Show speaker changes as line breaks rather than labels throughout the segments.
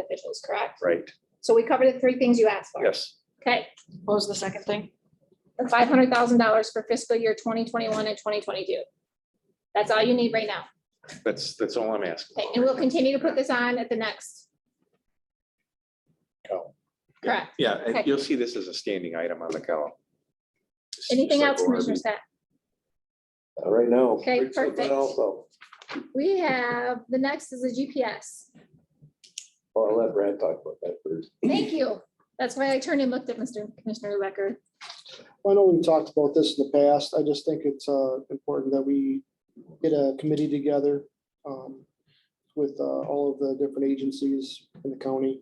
officials, correct?
right?
So we covered the three things you asked for.
Yes.
Okay,
What was the second thing?
five hundred thousand dollars for fiscal year twenty twenty-one and twenty twenty-two. That's all you need right now.
That's, that's all I'm asking.
Okay, and we'll continue to put this on at the next.
Go.
Correct.
Yeah, and
Okay.
you'll see this as a standing item on the column.
Anything
Just like
else,
ORB.
Commissioner Scott?
Uh, Right now.
Okay,
Rick's looking
perfect.
Also,
We have, the next is the GPS.
well, I'll let Brad talk about that first.
Thank you. That's why I turned and looked at Mr. Commissioner Lecker.
I know we've talked about this in the past. I just think it's uh, important that we get a committee together um, with uh, all of the different agencies in the county,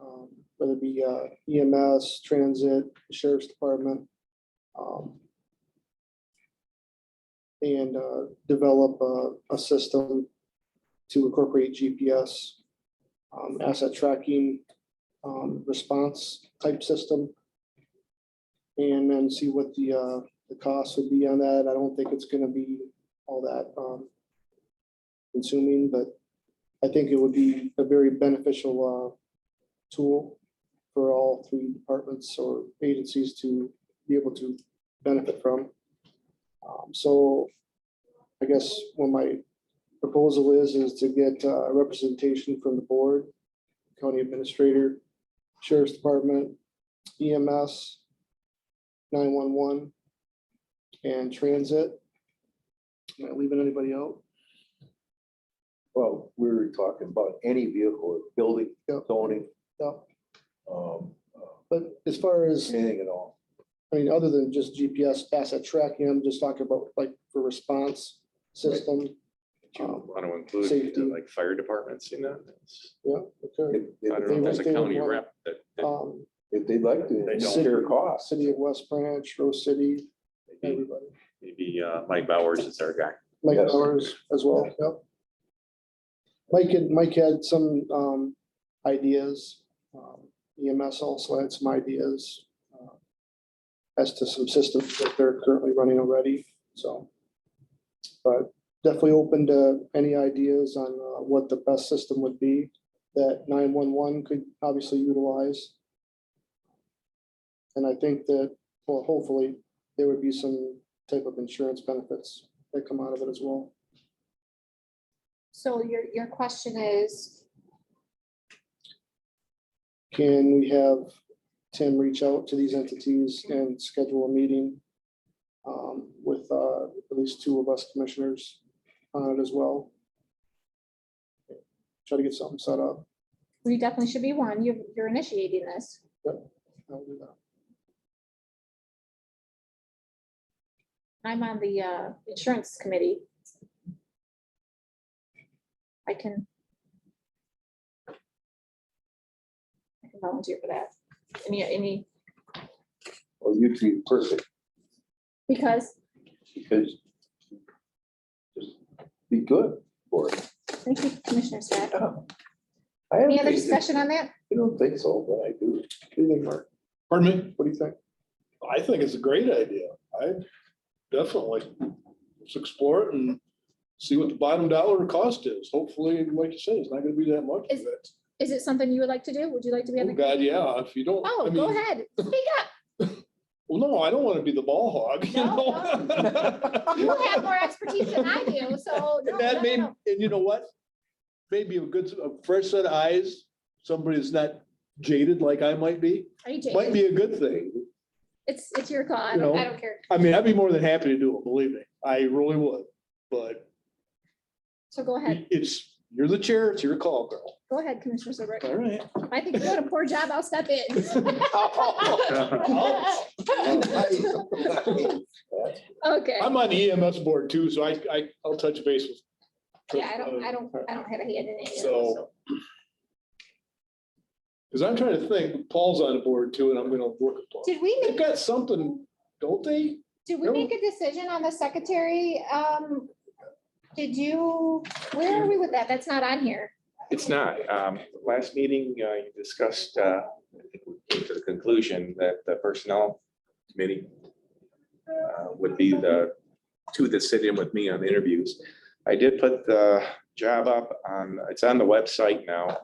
um, whether it be uh, EMS, transit, sheriff's department. um, And uh, develop uh, a- a system to incorporate GPS, um, asset tracking, um, response type system and then see what the, uh, the cost would be on that. I don't think it's gonna be all that, um, consuming, but I think it would be a very beneficial, uh, tool for all three departments or agencies to be able to benefit from. Um, so I guess what my proposal is, is to get, uh, representation from the board, county administrator, sheriff's department, E EMS, nine-one-one and transit. Am I leaving anybody out?
Well, we were talking about any vehicle, building,
Yep.
zoning,
No,
um, uh,
but as far as,
anything at all.
I mean, other than just GPS asset tracking, I'm just talking about like for response system.
Do you want to include
Safety.
uh, like fire departments in that?
Yeah, okay.
If,
I don't
if
know if there's a
They would- they would
county
want-
rep that, that-
Um,
if they'd like
They
to,
don't.
share costs.
City of West Branch, Rose City, everybody,
maybe uh, Mike Bowers is our guy.
Mike
Yes.
Powers as well, yep. Mike had, Mike had some, um, ideas. Um, EMS also had some ideas uh, as to some systems that they're currently running already, so. But definitely open to any ideas on uh, what the best system would be that nine-one-one could obviously utilize. And I think that, well, hopefully, there would be some type of insurance benefits that come out of it as well.
So your, your question is,
Can we have Tim reach out to these entities and schedule a meeting um, with uh, at least two of us commissioners on it as well? Try to get something set up.
we definitely should be one. You're, you're initiating this.
I'll do that.
I'm on the uh, insurance committee. I can. I can volunteer for that. Any, any,
Well, you'd be perfect
because,
because just be good for it.
thank you, Commissioner Scott.
I have
Any other
faith in-
discussion on that?
I don't think so, but I do.
What do you think, Mark?
Pardon me?
What do you think?
I think it's a great idea. I definitely, let's explore it and see what the bottom dollar cost is. Hopefully, like you said, it's not gonna be that much.
Is- Is it something you would like to do? Would you like to be on
Oh,
the?
God, yeah, if you don't. I
Oh,
mean,
go ahead. Speak up.
Well, no, I don't wanna be the ball hog, you
No,
know?
You have more expertise than I do, so. no, no,
And that may,
no.
and you know what? Maybe a good, a fresh set of eyes, somebody that's not jaded like I might be,
Are you joking?
might be a good thing.
It's, it's your call. I
You
don't,
know.
I don't care.
I mean, I'd be more than happy to do it, believe me. I really would. But
So go ahead.
it's, you're the chair, it's your call, girl.
Go ahead, Commissioner Serbrook.
All right.
I think you're doing a poor job. I'll step in. Okay.
I'm on the EMS board too, so I, I, I'll touch base with.
Yeah, I don't, I don't, I don't have a hand in it.
So. Cause I'm trying to think, Paul's on the board too, and I'm gonna work with Paul.
Did we,
They've
make
got something, don't they?
did we make a decision on the secretary? Um, did you, where are we with that? That's not on here.
It's not. Um, Last meeting, uh, you discussed, uh, I think we came to the conclusion that the personnel committee uh, would be the two that sit in with me on interviews. I did put the job up on, it's on the website now.